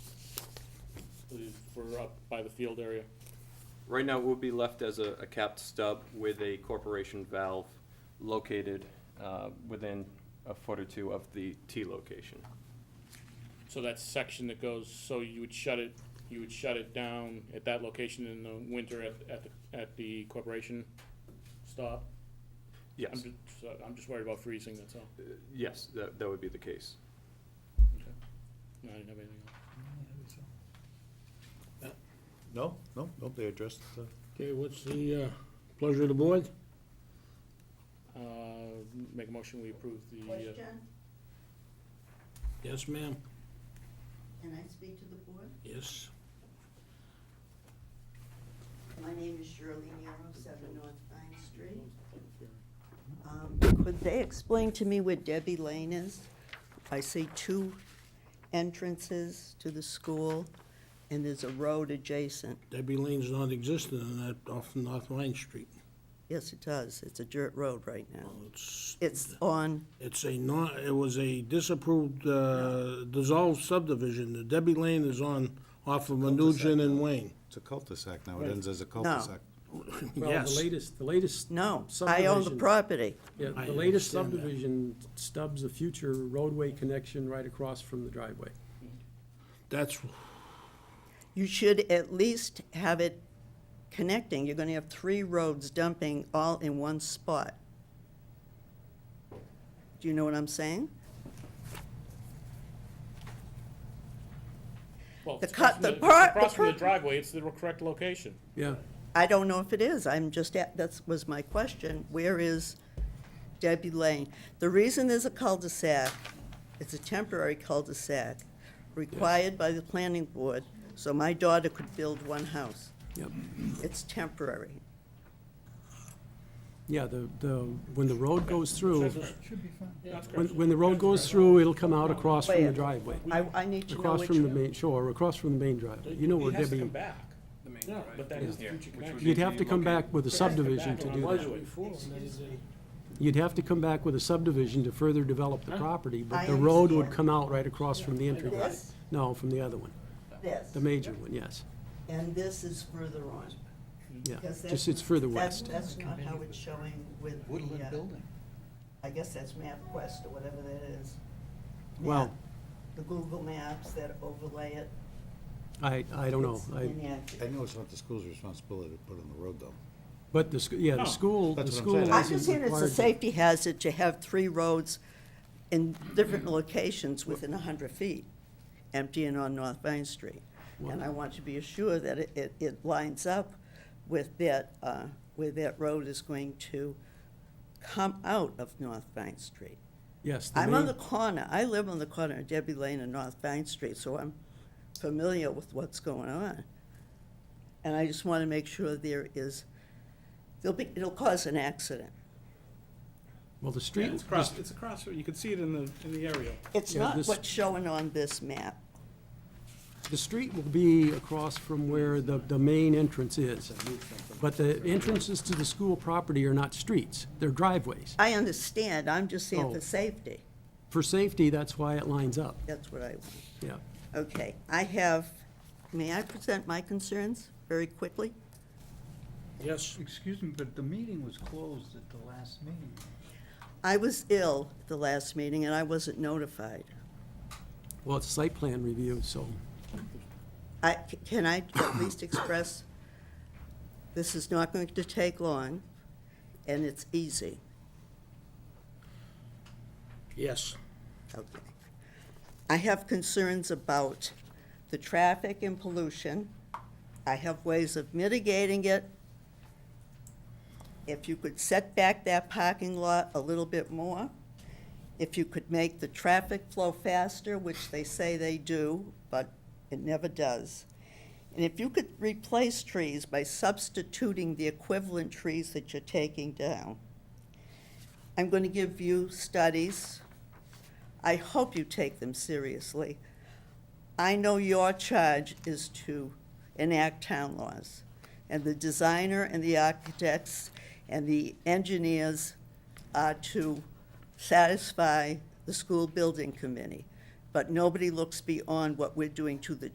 for up by the field area. Right now, it would be left as a, a capped stub with a corporation valve located uh, within a foot or two of the T location. So that section that goes, so you would shut it, you would shut it down at that location in the winter at, at the, at the corporation stop? I'm Yes, just, so I'm just worried about freezing, that's all. Uh, yes, that, that would be the case. No, I didn't have anything else. No, no, no, they addressed, uh, Okay, what's the uh, pleasure of the board? Uh, make a motion, we approve the, uh, Question, Yes, ma'am. can I speak to the board? Yes. My name is Shirley Nero, seven North Vine Street. Mm-hmm. Um, Could they explain to me where Debbie Lane is? I see two entrances to the school, and there's a road adjacent. Debbie Lane's non-existent on that, off North Vine Street. Yes, it does, it's a dirt road right now. Oh, It's, It's on, it's a non, it was a disapproved, uh, dissolved subdivision. The Debbie Lane is on, off of Menujan and Wayne. it's a cul-de-sac now, it ends as a cul-de-sac. Yes. Well, the latest, the latest. no, I own the subdivision- property. Yeah, I the latest understand that. subdivision stubs a future roadway connection right across from the driveway. That's, You should at least have it connecting. You're gonna have three roads dumping all in one spot. Do you know what I'm saying? well. The it's cut- across the from part- the Across from the part- driveway, it's the correct location. Yeah, I don't know if it is. I'm just, at- that was my question. Where is Debbie Lane? The reason there's a cul-de-sac, it's a temporary cul-de-sac required by the planning board, so my daughter could build one house. Yep. It's temporary. yeah, the, the, when the road goes through, Should be fine. That's when, correct. when the road goes through, it'll come out across from the driveway. I, I need to know Across which. from the main, sure, across from the main driveway. You know where It has to come Debbie, back, the main Yeah, drive. but that is the future connection. you'd have to come back with a It has to come subdivision back to on do the that. roadway. You'd have to come back with a subdivision to further develop the property, I but the road would understand. come out right across from the entryway. This, No, from the other one, this, the major one, yes, and this is further on. yeah. Because Just, that's- it's further That's, west. that's not how it's showing with Woodland the, uh, building. I guess that's MapQuest or whatever that is. Well- Map, The Google Maps that overlay it. I, I don't know. It's Oh, I, inaccurate. I know it's not the school's responsibility to put on the road, though. but the, sc- yeah, No. the school, the Oh, That's what I'm school saying. isn't I I'm required. just saying it's a to- safety hazard to have three roads in different locations within hundred feet, emptying on North Main Street. And I want to be assured that it, it, it lines up with that, uh, where that road is going to come out of North Main Street. Yes, the I'm on main- the corner, I live on the corner of Debbie Lane and North Bank Street, so I'm familiar with what's going on. And I just want to make sure there is, there'll be, it'll cause an accident. well, the Yeah, street, It's across, it's across, you can see it in the, in the aerial. It's Yeah, not this- what's showing on this map. the street will be across from where the, the main entrance is. But the entrances to the school property are not streets, they're driveways. I understand, I'm just saying Oh. for safety, For safety, that's why it lines up, that's what I want. yeah. Okay, I have, may I present my concerns very quickly? yes, Excuse me, but the meeting was closed at the last meeting. I was ill at the last meeting and I wasn't notified. Well, it's site plan review, so, I, can I at least express, this is not going to take long, and it's easy, yes. okay? I have concerns about the traffic and pollution. I have ways of mitigating it. If you could set back that parking lot a little bit more, if you could make the traffic flow faster, which they say they do, but it never does. And if you could replace trees by substituting the equivalent trees that you're taking down. I'm going to give you studies. I hope you take them seriously. I know your charge is to enact town laws. And the designer and the architects and the engineers are to satisfy the school building committee. But nobody looks beyond what we're doing to the